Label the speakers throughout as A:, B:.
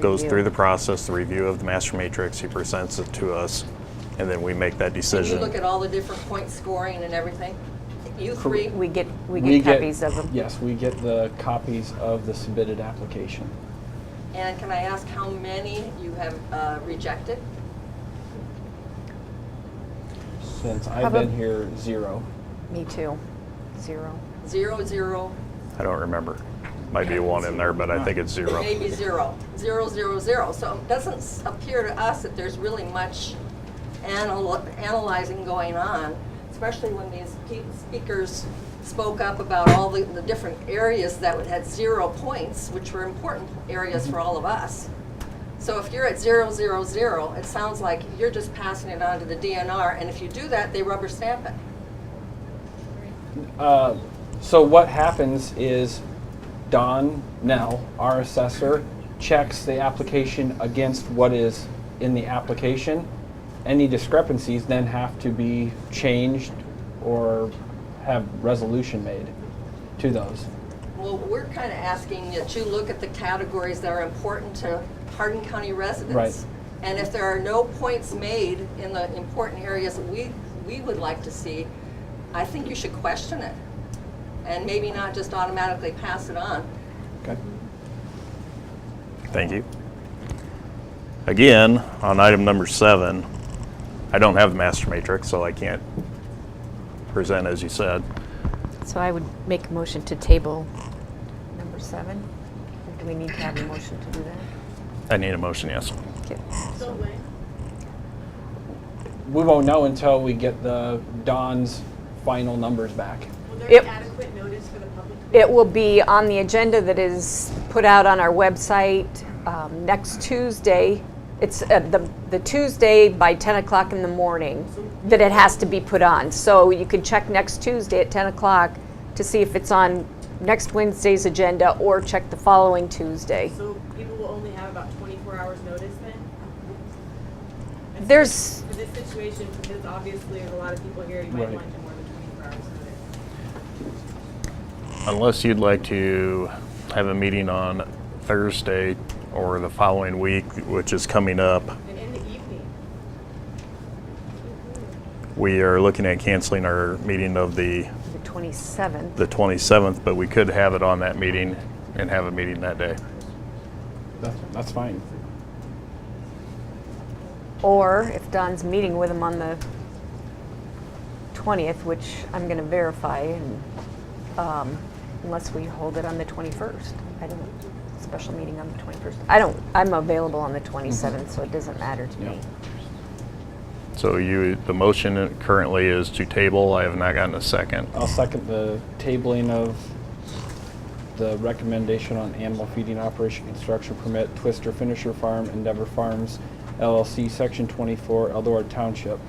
A: goes
B: Review.
A: through the process, the review of the master matrix, he presents it to us, and then we make that
C: Did you
A: decision.
C: look at all the different point scoring and everything? You three?
B: We get, we get copies of them.
D: Yes, we get the copies of the submitted application.
C: And can I ask how many you have uh, rejected?
D: Since I've been
B: Probab-
D: here, zero.
B: Me too. Zero.
C: Zero, zero,
A: I don't remember. Might be one in there, but I think it's zero.
C: maybe zero. Zero, zero, zero. So it doesn't s- appear to us that there's really much anal- analyzing going on, especially when these pe- speakers spoke up about all the, the different areas that would- had zero points, which were important areas for all of us. So if you're at zero, zero, zero, it sounds like you're just passing it on to the DNR, and if you do that, they rubber stamp it.
D: Uh, So what happens is Don Nell, our assessor, checks the application against what is in the application. Any discrepancies then have to be changed or have resolution made to those.
C: Well, we're kind of asking that you look at the categories that are important to Hardin County residents.
D: Right.
C: And if there are no points made in the important areas that we, we would like to see, I think you should question it. And maybe not just automatically pass it on.
D: Okay.
A: Thank you. Again, on item number seven, I don't have the master matrix, so I can't present as you said.
B: So I would make a motion to table number seven. Or Do we need to have a motion to do that?
A: I need a motion, yes.
B: Okay.
D: We won't know until we get the Don's final numbers back.
E: Will
B: Yep.
E: there be adequate notice for the public?
B: It will be on the agenda that is put out on our website um, next Tuesday. It's uh, the the Tuesday by 10 o'clock in the morning that it has to be put on. So you can check next Tuesday at 10 o'clock to see if it's on next Wednesday's agenda or check the following Tuesday.
E: So people will only have about twenty-four hours notice then?
B: There's,
E: For this situation, because obviously there's a lot of people here, you might
D: Right.
E: want to more than twenty-four hours notice.
A: Unless you'd like to have a meeting on Thursday or the following week, which is coming up,
E: And in the evening,
A: we are looking at canceling our meeting of the,
B: the 27th.
A: the 27th, but we could have it on that meeting and have a meeting that day.
D: That's, that's fine.
B: Or if Don's meeting with him on the 20th, which I'm going to verify, and, um, unless we hold it on the 21st. I don't, special meeting on the 21st. I don't, I'm available on the 27th, so it doesn't matter to me.
D: Yeah.
A: So you, the motion currently is to table. I have not gotten a second.
D: I'll second the tabling of the recommendation on animal feeding operation construction permit, Twister Finisher Farm, Endeavor Farms LLC, Section 24, Eldora Township.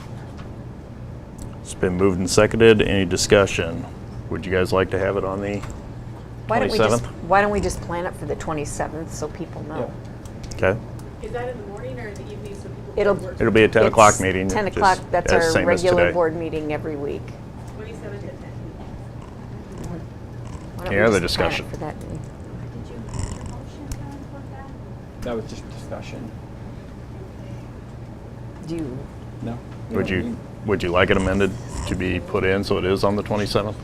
A: It's been moved and seconded. Any discussion? Would you guys like to have it on the?
B: Why don't we just,
A: 27th?
B: why don't we just plan it for the 27th so people know?
A: Okay.
E: is that in the morning or in the evening so people?
B: It'll-
A: It'll be a 10 o'clock
B: It's
A: meeting.
B: 10
A: just
B: o'clock, that's
A: as
B: our
A: same as
B: regular
A: today.
B: board meeting every week.
E: Twenty-seven to ten.
B: Why don't we
A: Any other
B: just plan it
A: discussion?
B: For that meeting?
F: Did you make your motion, Karen, for that?
D: That was just discussion.
B: Do you
D: No?
A: Would you, would you like it amended to be put in so it is on the 27th?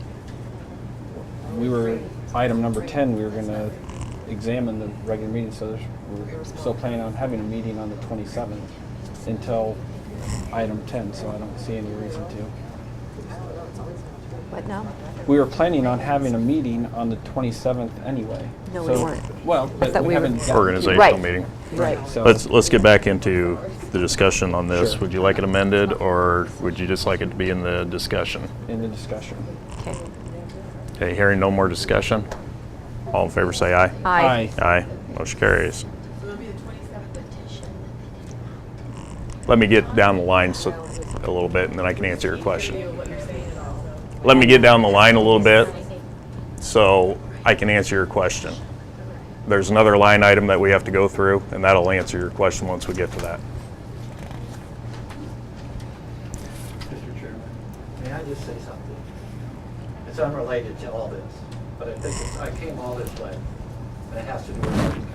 D: We were, item number 10, we were going to examine the regular meeting, so there's, we're still planning on having a meeting on the 27th until item 10, so I don't see any reason to.
B: What now?
D: We were planning on having a meeting on the 27th anyway.
B: No, we
D: So-
B: weren't.
D: Well, but
B: thought
D: we
B: we were-
D: haven't. gotten-
A: Organizational
B: Right.
A: meeting.
B: Right.
D: So-
A: Let's, let's get back into the discussion on this.
D: Sure.
A: Would you like it amended or would you just like it to be in the discussion?
D: In the discussion.
B: Okay.
A: Okay, hearing no more discussion? All in favor, say aye.
B: Aye.
A: Aye. Motion carries.
E: So it'll be the twenty-seventh to
A: Let me get down the line so, a little bit and then I can answer your question.
E: what you're saying is also.
A: let me get down the line a little bit so I can answer your question. There's another line item that we have to go through, and that'll answer your question once we get to that.
G: Mr. Chairman, may I just say something? It's unrelated to all this, but I think it's- I came all this way, and it has to do with